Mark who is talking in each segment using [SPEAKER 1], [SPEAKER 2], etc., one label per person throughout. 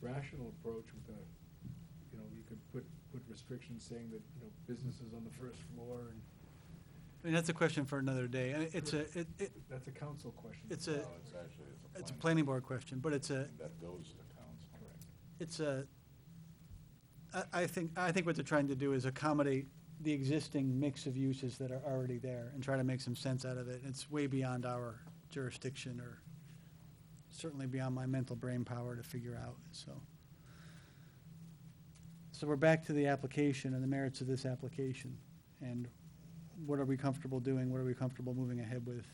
[SPEAKER 1] rational approach with a, you know, you could put, put restrictions saying that, you know, businesses on the first floor and
[SPEAKER 2] I mean, that's a question for another day. And it's a, it, it,
[SPEAKER 1] that's a council question.
[SPEAKER 2] It's
[SPEAKER 3] No,
[SPEAKER 2] a-
[SPEAKER 3] it's actually,
[SPEAKER 2] it's a planning board question, but it's a,
[SPEAKER 3] That goes to council.
[SPEAKER 2] it's a, I, I think, I think what they're trying to do is accommodate the existing mix of uses that are already there and try to make some sense out of it. It's way beyond our jurisdiction or certainly beyond my mental brain power to figure out, so. So we're back to the application and the merits of this application. And what are we comfortable doing? What are we comfortable moving ahead with,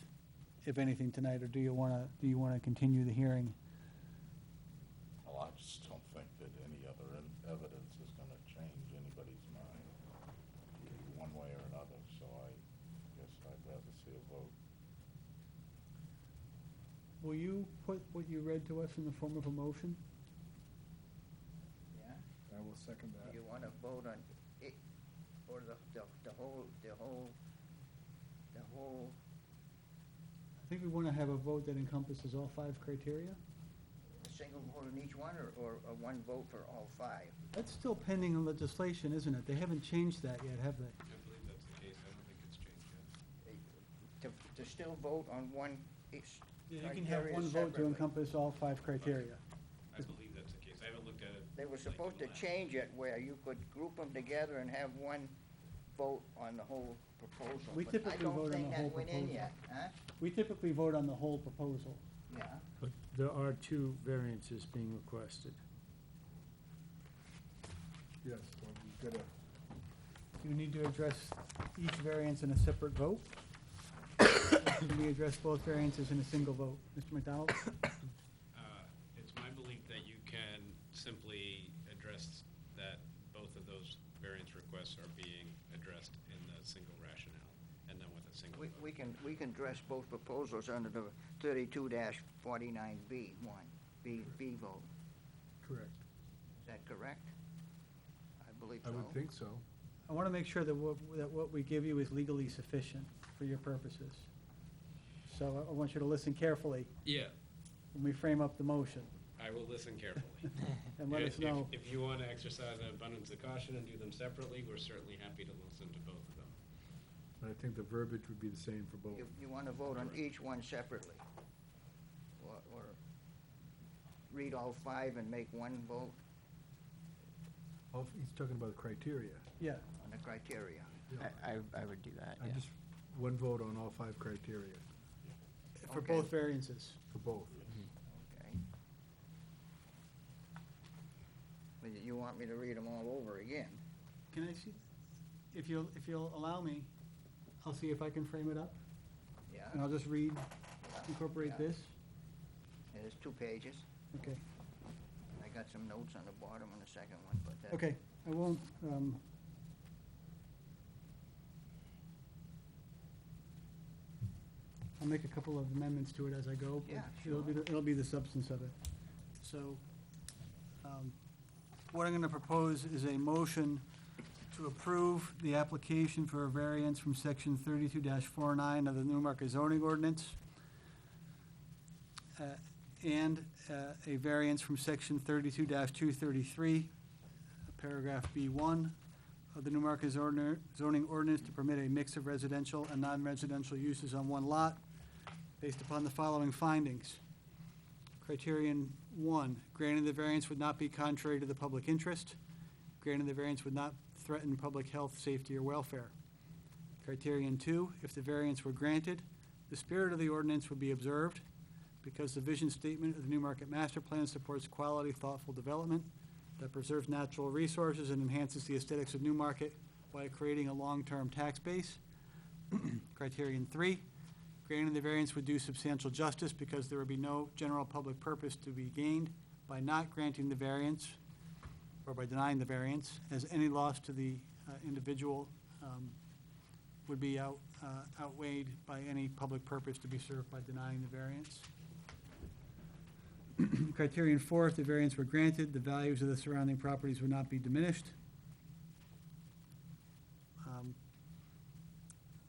[SPEAKER 2] if anything, tonight? Or do you want to, do you want to continue the hearing?
[SPEAKER 3] Well, I just don't think that any other ev- evidence is gonna change anybody's mind one way or another, so I guess I'd rather see a vote.
[SPEAKER 2] Will you put what you read to us in the form of a motion?
[SPEAKER 4] Yeah,
[SPEAKER 1] I will second that.
[SPEAKER 4] you wanna vote on it, or the, the, the whole, the whole, the whole,
[SPEAKER 2] I think we want to have a vote that encompasses all five criteria.
[SPEAKER 4] a single vote on each one, or, or a one vote for all five?
[SPEAKER 2] That's still pending in legislation, isn't it? They haven't changed that yet, have they?
[SPEAKER 5] I believe that's the case, I don't think it's changed yet.
[SPEAKER 4] To, to still vote on one, each
[SPEAKER 2] You can have
[SPEAKER 4] criteria
[SPEAKER 2] one vote to
[SPEAKER 4] separately.
[SPEAKER 2] encompass all five criteria.
[SPEAKER 5] I believe that's the case, I haven't looked at it.
[SPEAKER 4] They were
[SPEAKER 5] like in
[SPEAKER 4] supposed to
[SPEAKER 5] the last-
[SPEAKER 4] change it where you could group them together and have one vote on the whole proposal.
[SPEAKER 2] We
[SPEAKER 4] but
[SPEAKER 2] typically vote on the
[SPEAKER 4] I
[SPEAKER 2] whole
[SPEAKER 4] don't think that went in
[SPEAKER 2] proposal.
[SPEAKER 4] yet, huh?
[SPEAKER 2] We typically vote on the whole proposal.
[SPEAKER 4] Yeah,
[SPEAKER 6] But there are two variances being requested.
[SPEAKER 1] Yes, well, we've got a,
[SPEAKER 2] You need to address each variance in a separate vote. Can we address both variances in a single vote? Mr. McDonald?
[SPEAKER 5] Uh, It's my belief that you can simply address that both of those variance requests are being addressed in the single rationale, and then with a single
[SPEAKER 4] we,
[SPEAKER 5] vote.
[SPEAKER 4] we can, we can address both proposals under the thirty-two forty-nine B one, B, B vote.
[SPEAKER 1] correct.
[SPEAKER 4] Is that correct? I believe
[SPEAKER 1] I
[SPEAKER 4] so.
[SPEAKER 1] would think so.
[SPEAKER 2] I want to make sure that what, that what we give you is legally sufficient for your purposes. So I- I want you to listen carefully
[SPEAKER 5] Yeah,
[SPEAKER 2] when we frame up the motion,
[SPEAKER 5] I will listen carefully.
[SPEAKER 2] and let
[SPEAKER 5] If-
[SPEAKER 2] us know.
[SPEAKER 5] If if you want to exercise an abundance of caution and do them separately, we're certainly happy to listen to both of them.
[SPEAKER 1] But I think the verbiage would be the same for both.
[SPEAKER 4] You, you wanna vote on each one separately? Or, or read all five and make one vote
[SPEAKER 1] Oh, He's talking about the criteria.
[SPEAKER 2] Yeah,
[SPEAKER 4] on the criteria?
[SPEAKER 1] Yeah.
[SPEAKER 7] I, I- I would do
[SPEAKER 4] Uh,
[SPEAKER 7] that,
[SPEAKER 1] I
[SPEAKER 7] yeah.
[SPEAKER 1] just, one vote on all five criteria
[SPEAKER 2] for
[SPEAKER 4] Okay.
[SPEAKER 2] both variances.
[SPEAKER 1] for both.
[SPEAKER 4] Okay. Well, you- You want me to read them all over again?
[SPEAKER 2] Can I see, if you'll, if you'll allow me, I'll see if I can frame it up,
[SPEAKER 4] Yeah?
[SPEAKER 2] and I'll just read,
[SPEAKER 4] yeah,
[SPEAKER 2] incorporate
[SPEAKER 4] yeah.
[SPEAKER 2] this.
[SPEAKER 4] And There's two pages.
[SPEAKER 2] Okay,
[SPEAKER 4] and I got some notes on the bottom on the second one, but that.
[SPEAKER 2] okay, I won't, um. I'll make a couple of amendments to it as I go. but
[SPEAKER 4] Yeah,
[SPEAKER 2] It'll be, the- it'll be the substance of it. So, um, what I'm gonna propose is a motion to approve the application for a variance from section thirty-two 49 of the Newmarket zoning ordinance, uh, and uh, a variance from section thirty-two two thirty-three, paragraph B one of the Newmarket zoner- zoning ordinance to permit a mix of residential and non-residential uses on one lot based upon the following findings. Criterion one, granting the variance would not be contrary to the public interest. Granting the variance would not threaten public health, safety, or welfare. Criterion two, if the variance were granted, the spirit of the ordinance would be observed because the vision statement of the Newmarket Master Plan supports quality, thoughtful development that preserves natural resources and enhances the aesthetics of Newmarket by creating a long-term tax base. Criterion three, granting the variance would do substantial justice because there would be no general public purpose to be gained by not granting the variance or by denying the variance, as any loss to the uh, individual um, would be out uh, outweighed by any public purpose to be served by denying the variance. Criterion four, if the variance were granted, the values of the surrounding properties would not be diminished. Um,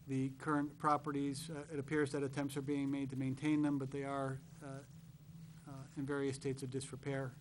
[SPEAKER 2] the current properties, uh, it appears that attempts are being made to maintain them, but they are uh, uh, in various states of disrepair,